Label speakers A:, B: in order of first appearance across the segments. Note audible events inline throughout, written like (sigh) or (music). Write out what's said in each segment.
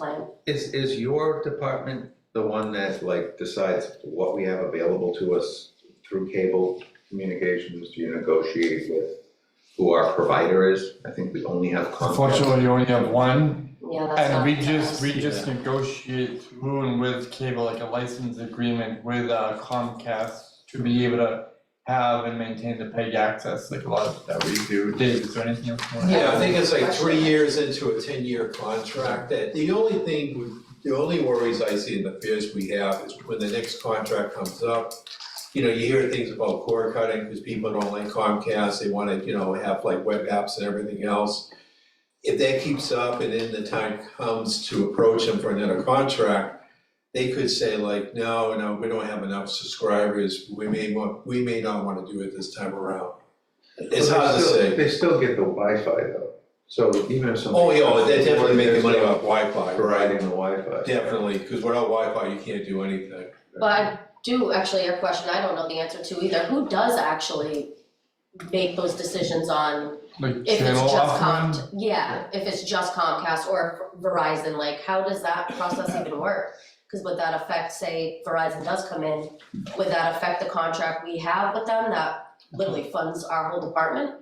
A: plan.
B: Is, is your department the one that like decides what we have available to us through cable communications? Do you negotiate with who our provider is? I think we only have Comcast.
C: Unfortunately, you only have one,
A: Yeah, that's
C: and
A: not.
C: we just, we just
B: Yeah.
C: negotiate through and with cable, like a license agreement with uh, Comcast to be able to have and maintain the PEG access, like a lot of that we do. Dave, is there anything else you want to add?
D: Yeah, I think it's like three years into a ten-year contract, that the only thing, we- the only worries I see in the fears we have is when the next contract comes up. You know, you hear things about cord cutting, because people don't like Comcast, they wanna, you know, have like web apps and everything else. If that keeps up and then the time comes to approach them for another contract, they could say like, no, no, we don't have enough subscribers, we may want, we may not wanna do it this time around. It's hard to
B: They still-
D: say.
B: They still get the Wi-Fi though, so even if somebody.
D: Oh, yeah, they're definitely making money
B: They're
D: off Wi-Fi,
B: still
D: right?
B: Providing the Wi-Fi.
D: Definitely, because without Wi-Fi, you can't do anything.
A: But I do actually have a question I don't know the answer to either. Who does actually make those decisions on
C: Like
A: if it's
C: channel
A: just
C: offering?
A: Comcast? Yeah, if it's just Comcast or Verizon, like how does that process even work? Cause would that affect, say Verizon does come in, would that affect the contract we have with them that literally funds our whole department?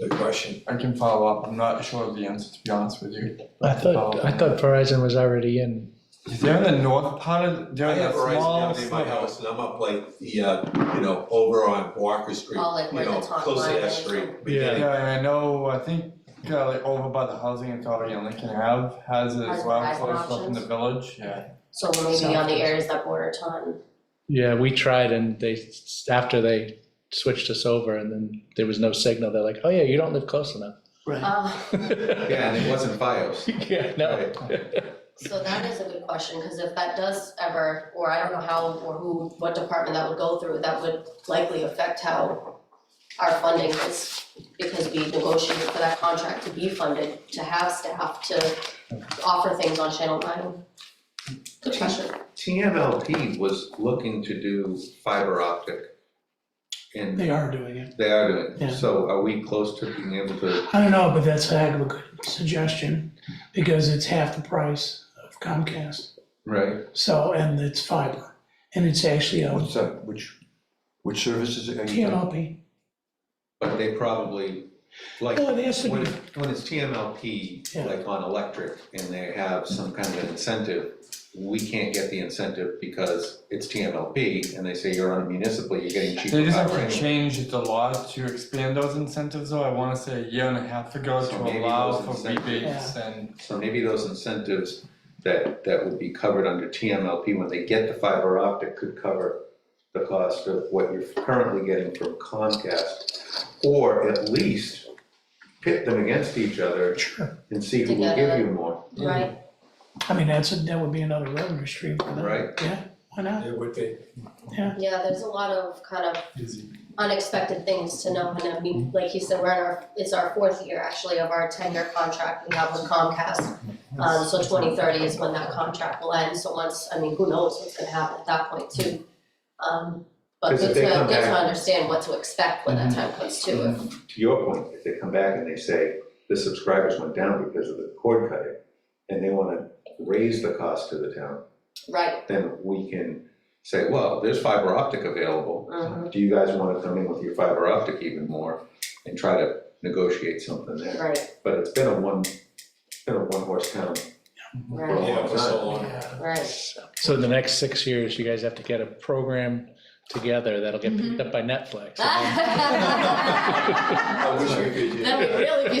D: Good question.
C: I can follow up, I'm not sure of the answer, to be honest with you.
E: I thought, I thought Verizon was already in.
C: They're in the north part of,
D: I
C: they're in
D: have
C: that
D: Verizon
C: small
D: down near my
C: suburb.
D: house, and I'm up like the, uh, you know, over on Walker Street,
A: All like
D: you
A: where the
D: know,
A: top
D: close to
A: line
D: that
A: is.
D: street.
E: Yeah.
C: Yeah, and I know, I think, uh, like over by the housing authority on Lincoln Ave has it as
A: Has
C: well,
A: Verizon
C: close up in the
A: options?
C: village, yeah.
A: So maybe on the areas that border Taunton.
E: Yeah, we tried and they, after they switched us over and then there was no signal, they're like, oh yeah, you don't live close enough. (laughs)
A: Uh,
B: Yeah, and it wasn't FiOS.
E: Yeah, no.
A: So that is a good question, because if that does ever, or I don't know how or who, what department that would go through, that would likely affect how our funding is, because we negotiated for that contract to be funded, to have staff, to offer things on Channel Nine. Good question.
B: TMLP was looking to do fiber optic. And
F: They are doing it.
B: they are doing,
F: Yeah.
B: it. so are we close to being able to,
F: I don't know, but that's a heck of a good suggestion because it's half the price of Comcast.
B: right?
F: So, and it's fiber. And it's actually a
G: What's that, which, which services are you?
F: TMLP.
B: But they probably, like,
F: Well, it has to
B: when,
F: be,
B: when it's TMLP,
F: Yeah.
B: like on electric, and they have some kind of incentive, we can't get the incentive because it's TMLP, and they say you're on a municipal, you're getting
C: They
B: cheaper
C: just
B: power
C: actually
B: anyway.
C: changed the law to expand those incentives, though, I wanna say a year and a half ago
B: So
C: to
B: maybe
C: allow
B: those
C: for
B: incentives-
C: rebates and,
B: So maybe those incentives that, that would be covered under TMLP when they get the fiber optic could cover the cost of what you're currently getting from Comcast. Or at least pit them against each other
F: sure.
B: and see who will give you more,
A: Right,
F: I mean, that's, a- that would be another revenue stream for them.
B: right?
F: Yeah, why not?
D: It would be.
A: yeah, there's a lot of kind of unexpected things to know, and I mean, like you said, we're in our, it's our fourth year actually of our ten-year contract we have with Comcast. Um, so twenty thirty is when that contract will end, so once, I mean, who knows what's gonna happen at that point too. Um, but
B: Because if
A: good to,
B: they come Mm-hmm.
A: good to
B: back-
A: understand what to expect when that time comes too, if,
B: to your point, if they come back and they say, the subscribers went down because of the cord cutting, and they wanna raise the cost to the town,
A: right,
B: then we can say, well, there's fiber optic available.
A: mhm,
B: Do you guys wanna come in with your fiber optic even more and try to negotiate something there?
A: right,
B: But it's been a one, it's been a one horse town for a
A: right,
D: Yeah, for
B: long
D: so
B: time.
D: long.
A: right, (laughs)
E: So in the next six years, you guys have to get a program together that'll get picked up by Netflix.
A: Ah!
E: (laughs)
D: I wish we could do
A: that would
D: that.
A: really be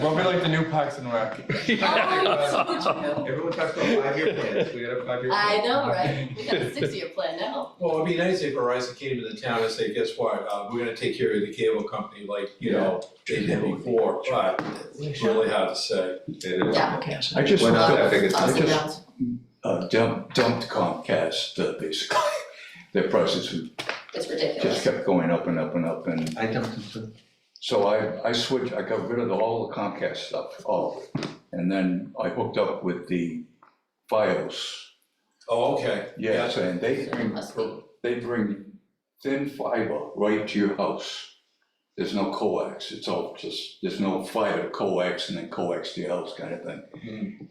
C: (laughs)
A: (laughs)
C: we'll be like the new Parks and Rec.
A: Oh, it's so true.
B: Everyone talks about five-year plans, we had a five-year plan.
A: I know, right? We got a six-year plan now.
D: Well, it'd be nice if Verizon came to the town and said, guess what, uh, we're gonna take care of the cable company like, you know, they did before, but it's really hard to say.
B: It is.
A: Yeah.
F: Comcast.
G: I just
B: We're not that
G: dumped,
B: big a
A: Ups and
G: just-
A: downs.
G: uh, dumped dumped Comcast, uh, basically. (laughs) Their prices
A: It's
G: just
A: ridiculous.
G: kept going up and up and up, and
B: I dumped them too.
G: so I, I switched, I got rid of all the Comcast stuff, all of it. And then I hooked up with the FiOS,
D: Oh, okay.
G: yes, and they
A: So it
G: bring,
A: must be.
G: they bring thin fiber right to your house. There's no coax, it's all just, there's no fiber, coax, and then coax to your house kind of thing.